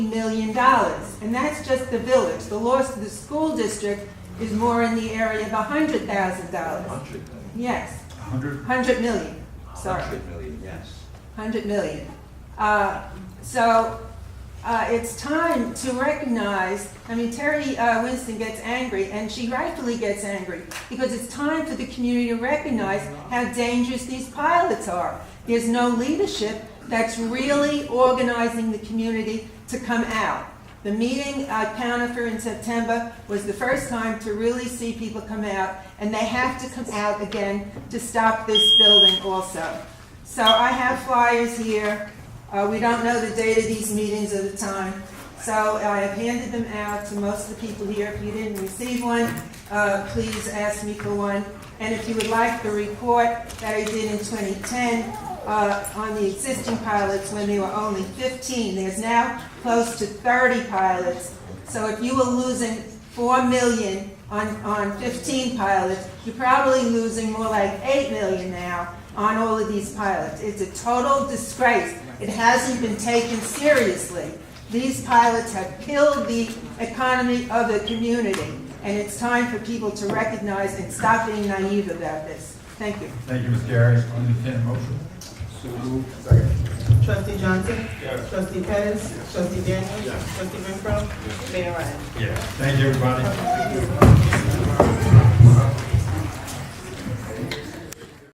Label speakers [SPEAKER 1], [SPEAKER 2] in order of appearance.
[SPEAKER 1] million dollars, and that's just the village. The loss to the school district is more in the area of a hundred thousand dollars.
[SPEAKER 2] Hundred million.
[SPEAKER 1] Yes,
[SPEAKER 2] Hundred?
[SPEAKER 1] hundred million, sorry,
[SPEAKER 2] Hundred million, yes.
[SPEAKER 1] hundred million. Uh, so, uh, it's time to recognize, I mean, Terry, uh, Winston gets angry, and she rightfully gets angry, because it's time for the community to recognize how dangerous these pilots are. There's no leadership that's really organizing the community to come out. The meeting, uh, Conifer in September was the first time to really see people come out, and they have to come out again to stop this building also. So I have flyers here. Uh, we don't know the date of these meetings at the time, so I have handed them out to most of the people here. If you didn't receive one, uh, please ask me for one. And if you would like the report that I did in 2010 uh, on the existing pilots when there were only 15, there's now close to 30 pilots. So if you were losing 4 million on, on 15 pilots, you're probably losing more like 8 million now on all of these pilots. It's a total disgrace. It hasn't been taken seriously. These pilots have killed the economy of the community, and it's time for people to recognize and stop being naive about this. Thank you.
[SPEAKER 3] Thank you, Ms. Gary. Entertained a motion?
[SPEAKER 4] Trustee Johnson? Trustee Pettis? Trustee Daniels? Trustee Renfro? Mayor Ryan?
[SPEAKER 3] Yes. Thank you, everybody.